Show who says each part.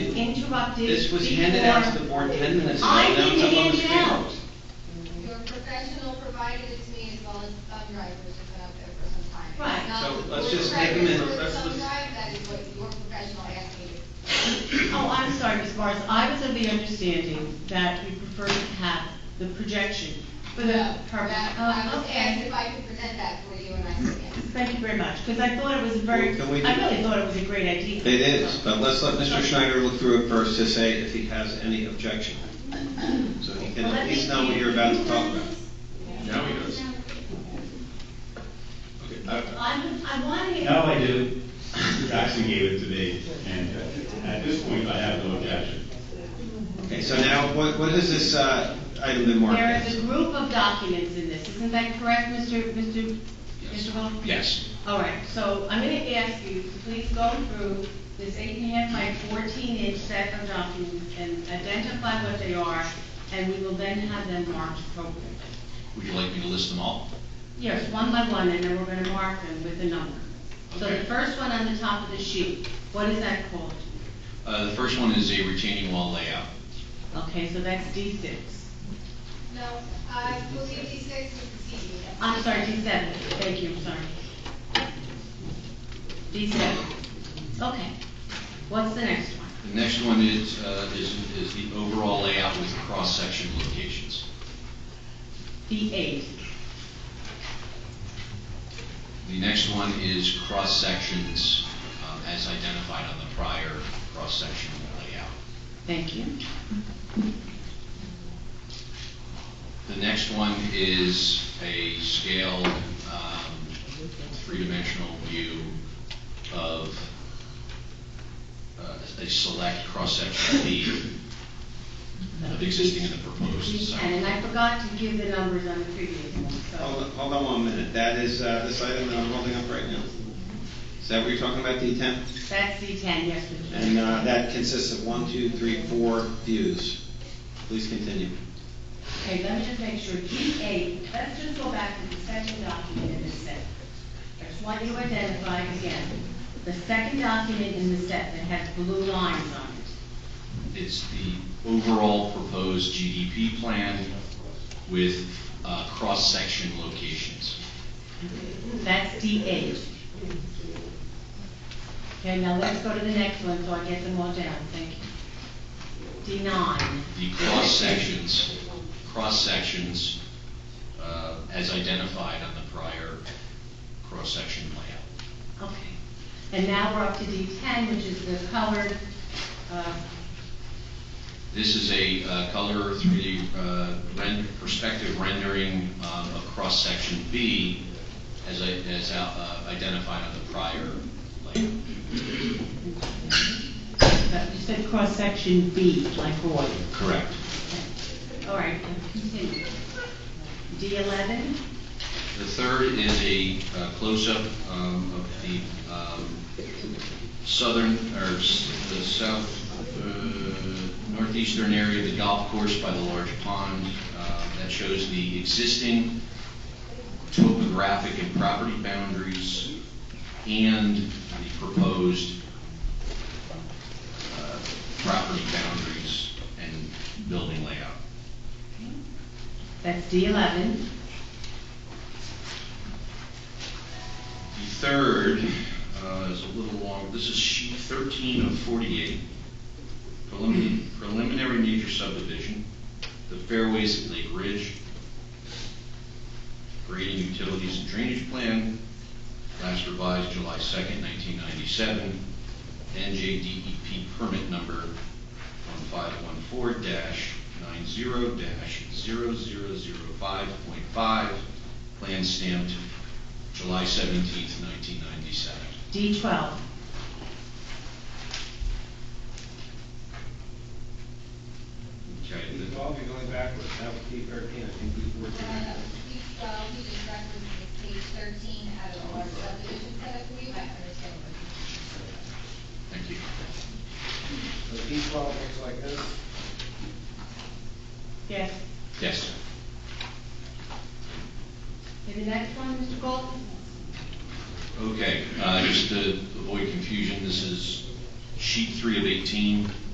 Speaker 1: corrupted
Speaker 2: This was handed out to the
Speaker 1: before-
Speaker 2: board ten minutes ago.
Speaker 1: I
Speaker 2: Now it's
Speaker 1: didn't
Speaker 2: up on the
Speaker 1: hand it
Speaker 2: screen.
Speaker 1: out.
Speaker 3: Your professional provided it to me as well as some drivers have been up there for some time.
Speaker 1: Right.
Speaker 3: Now,
Speaker 2: So
Speaker 3: the
Speaker 2: let's
Speaker 3: board
Speaker 2: just take a minute.
Speaker 3: records for
Speaker 2: Let's-
Speaker 3: Some
Speaker 2: let's-
Speaker 3: drive, that is what your professional asked me to
Speaker 1: Oh, I'm sorry, Ms. Barnes, I was of the understanding that you preferred to have the projection for the purpose.
Speaker 3: That- I
Speaker 1: Oh,
Speaker 3: was asked
Speaker 1: uh, okay.
Speaker 3: if I could present that for you, and I said yes.
Speaker 1: Thank you very much, because I thought it was a very,
Speaker 4: Can we-
Speaker 1: I really thought it was a great idea.
Speaker 4: It is, but let's let Mr. Schneider look through it first to say if he has any objection. So he can at least know what you're about to talk about.
Speaker 5: Now he does.
Speaker 4: Okay, I-
Speaker 1: I'm, I want to.
Speaker 6: Now I do. Mr. Jackson gave it to me, and uh, at this point, I have no objection.
Speaker 4: Okay, so now, what, what has this, uh, item been marked
Speaker 1: There is
Speaker 4: as?
Speaker 1: a group of documents in this, isn't that correct, Mr. Mr. Mr. Hall?
Speaker 5: Yes.
Speaker 1: All right, so I'm going to ask you to please go through this eight and a half by fourteen inch set of documents and identify what they are, and we will then have them marked appropriately.
Speaker 5: Would you like me to list them all?
Speaker 1: Yes, one by one, and then we're going to mark them with a number. So the
Speaker 5: Okay.
Speaker 1: first one on the top of the sheet, what is that called?
Speaker 5: Uh, the first one is a retaining wall layout.
Speaker 1: Okay, so that's D six.
Speaker 3: No, I believe D six is the CD.
Speaker 1: I'm sorry, D seven, thank you, I'm sorry. D seven, okay. What's the next one?
Speaker 5: The next one is, uh, is, is the overall layout with cross-section locations.
Speaker 1: D eight,
Speaker 5: The next one is cross-sections, um, as identified on the prior cross-section layout.
Speaker 1: thank you.
Speaker 5: The next one is a scaled, um, three-dimensional view of uh, a select cross-section of the, of existing and the proposed
Speaker 1: Please,
Speaker 5: site.
Speaker 1: And I forgot to give the numbers on the previous one,
Speaker 4: Hold
Speaker 1: so.
Speaker 4: on, hold on one minute, that is, uh, this item that I'm holding up right now. Is that what you're talking about, D ten?
Speaker 1: That's D ten, yes, Mr.
Speaker 4: And,
Speaker 1: Chairman.
Speaker 4: uh, that consists of one, two, three, four views. Please continue.
Speaker 1: Okay, let me just make sure, D eight, let's just go back to the second document in this set. There's one you identified again, the second document in the set that has blue lines on it.
Speaker 5: It's the overall proposed GDP plan with uh, cross-section locations.
Speaker 1: That's D eight. Okay, now let's go to the next one, so I get them all down, thank you. D nine,
Speaker 5: The cross-sections, cross-sections uh, as identified on the prior cross-section layout.
Speaker 1: Okay, and now we're up to D ten, which is the colored, uh,
Speaker 5: This is a uh, color 3D uh, ren- perspective rendering um, of cross-section B as I- as out- uh, identified on the prior layout.
Speaker 1: but you said cross-section B, like boy.
Speaker 5: Correct.
Speaker 1: All right, then continue. D eleven,
Speaker 5: The third is a uh, close-up um, of the um, southern, or s- the south, uh, northeastern area of the golf course by the large pond. uh, That shows the existing topographic and property boundaries and the proposed uh, property boundaries and building layout.
Speaker 1: that's D eleven,
Speaker 5: The third uh, is a little long, this is sheet 13 of 48, preliminary- preliminary major subdivision, the fairways at Lake Ridge, grading utilities and drainage plan, last revised July 2nd, 1997, NJDEP E permit number 1514-90-0005.5, plan stamped July seventeenth, nineteen ninety-seven.
Speaker 1: D twelve,
Speaker 5: Okay,
Speaker 4: We've
Speaker 5: the-
Speaker 4: all been going backwards, that would be thirteen, I think D
Speaker 3: Uh, we- Well, he just referenced page thirteen out of our subdivision set up for you, I understand what you're saying.
Speaker 5: thank you.
Speaker 4: So D twelve looks like this.
Speaker 1: yes.
Speaker 5: Yes.
Speaker 1: And the next one, Mr. Gold?
Speaker 5: Okay, uh, just to avoid confusion, this is sheet three of eighteen,